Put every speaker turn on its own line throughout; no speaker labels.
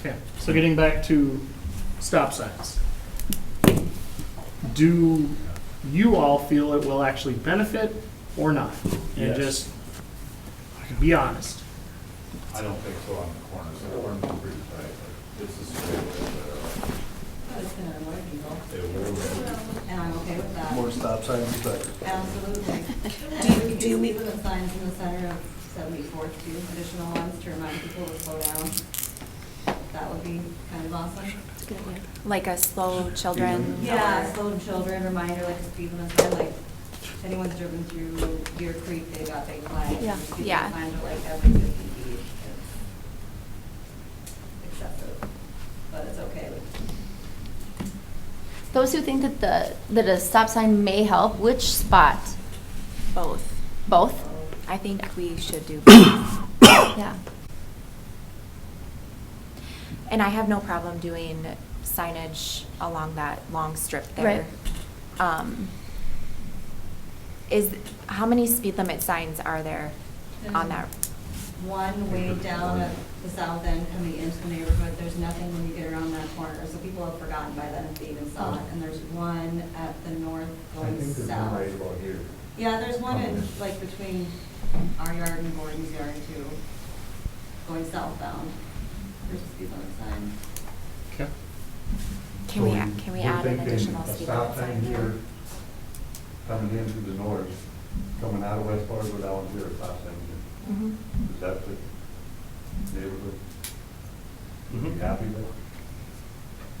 Okay, so getting back to stop signs. Do you all feel it will actually benefit or not? And
Yes.
just be honest.
I don't think so on the corners, the corners are pretty tight, but this is way uh, better.
But it's gonna annoy people,
It will
and I'm okay with that,
More stop signs, but
absolutely. Do, do we? Put the signs in the center of seventy-fourth, two additional ones to remind people to slow down. That would be kind of awesome.
Like a slow children.
Yeah, slow children, reminder, like, if people are, like, if anyone's driven through Deer Creek, they got big flags.
Yeah.
People
Yeah.
Find it like every fifty feet. It's Excessive, but it's okay with
Those who think that the, that a stop sign may help, which spot? Both. Both? I think we should do both. Yeah. And I have no problem doing signage along that long strip there. Um, Is, how many speed limit signs are there on that?
one way down at the south end coming into the neighborhood, there's nothing when you get around that corner, so people have forgotten by then if they even saw it, and there's one at the north
I
going
think there's one
south.
right about here.
Yeah, there's one in, like, between our yard and Gordon's yard too, going southbound, there's a speed limit sign.
Okay.
Can we, a- can we add an additional
So
speed
we're thinking a stop sign
limit sign?
here, coming in through the north, coming out of West Fargo down here, a stop sign here.
Mhm.
Is that the neighborhood you'd be
Mhm.
happy with?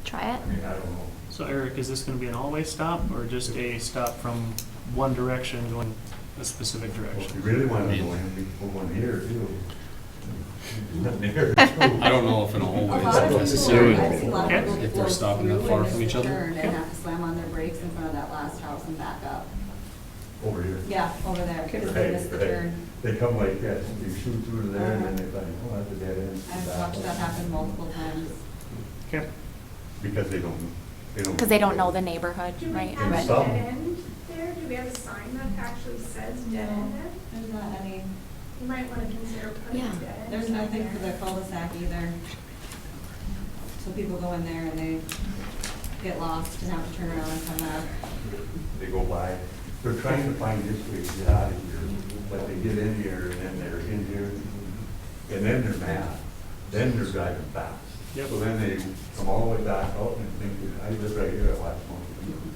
Try it?
I mean, I don't know.
So Eric, is this gonna be an all-way stop or just a stop from one direction going a specific
Well, If you
direction?
really want to go in, we can put one here too. Nothing there.
I don't know if in a
A
whole way
lot of
it's
people,
necessary.
I've seen a lot of people
If they're
flow
stopping
through
that far
and
from
miss
each
the
other.
turn And have to slam on their brakes in front of that last house and back up.
Over here.
Yeah, over there, because they missed the
Right, right.
turn. Uh-huh.
They come like that, they shoot through to there and then they think, oh, that's a dead end.
I've watched that happen multiple times.
Okay,
Because they don't, they don't.
Because they don't know the neighborhood,
Do we
right?
have
Right.
a
Some.
dead end there? Do we have a sign that actually says dead end? there?
There's not any,
You might want to consider putting
Yeah.
dead end.
there's nothing for the
there.
cul-de-sac either. So people go in there and they get lost and have to turn around and come back.
They go by, they're trying to find this way to get out of here, but they get in here and then they're in here, and then they're mad, then they're driving fast.
Yep.
So then they come all the way back out and think, I live right here, I watch most of them.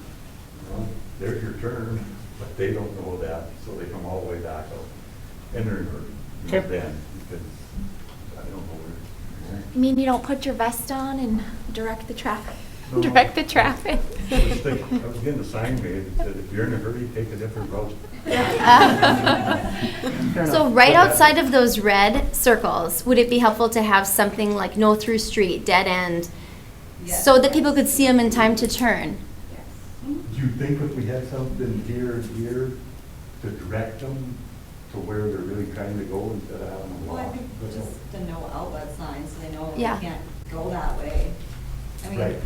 Well, There's your turn, but they don't know that, so they come all the way back out, and they're in a
Okay.
bend, because I don't know where.
You mean you don't put your vest on and direct the traffic,
No.
direct the traffic?
I was thinking, I was getting a sign made that said, if you're in a hurry, take a different route.
fair
So
enough.
right
uh,
outside of those red circles, would it be helpful to have something like no through street, dead end?
Yes.
So that people could see them in time to turn?
Do you think if we had something here and here to direct them to where they're really trying to go instead of having them
Well, I
walk?
think just a no outlet sign, so they know they
Yeah.
can't go that way. I
Right,
mean,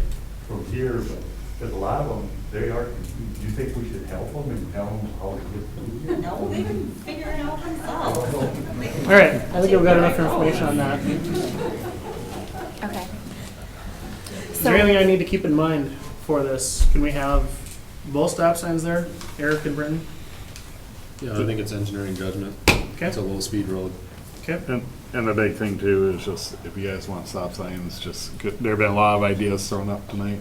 from here, but, because a lot of them, they are, do you think we should help them and tell them how to get through here?
no, they can figure it out themselves.
All right, I think we've got enough information on that.
Okay.
Is there anything I need to keep in mind for this? Can we have both stop signs there, Eric and Britton?
Yeah, I think it's engineering judgment.
Okay,
It's a low-speed road.
okay.
And, and the big thing too is just, if you guys want stop signs, just, could- there have been a lot of ideas thrown up tonight.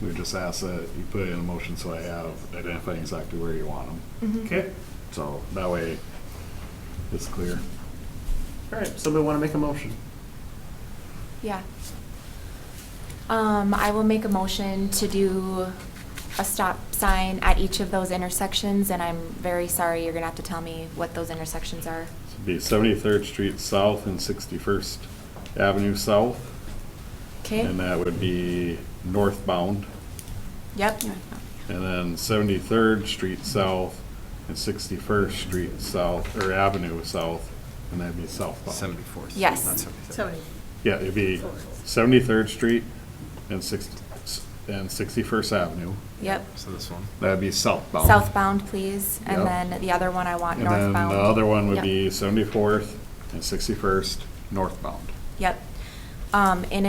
We just asked that you put it in a motion so I have identifying exactly where you want them.
Okay,
So that way it's clear.
all right, somebody want to make a motion?
Yeah. Um, I will make a motion to do a stop sign at each of those intersections, and I'm very sorry, you're gonna have to tell me what those intersections are.
It'd Be Seventy-third Street South and Sixty-first Avenue South.
Okay?
And that would be northbound.
Yep.
And then Seventy-third Street South and Sixty-first Street South, or Avenue South, and that'd be southbound.
Seventy-fourth.
Yes.
Yeah, it'd be Seventy-third Street and Six, and Sixty-first Avenue.
Yep.
So this one.
That'd be southbound.
Southbound, please, and
Yep.
then the other one I want
And then
northbound.
the other one would
Yep.
be Seventy-fourth and Sixty-first northbound.
Yep. Um, in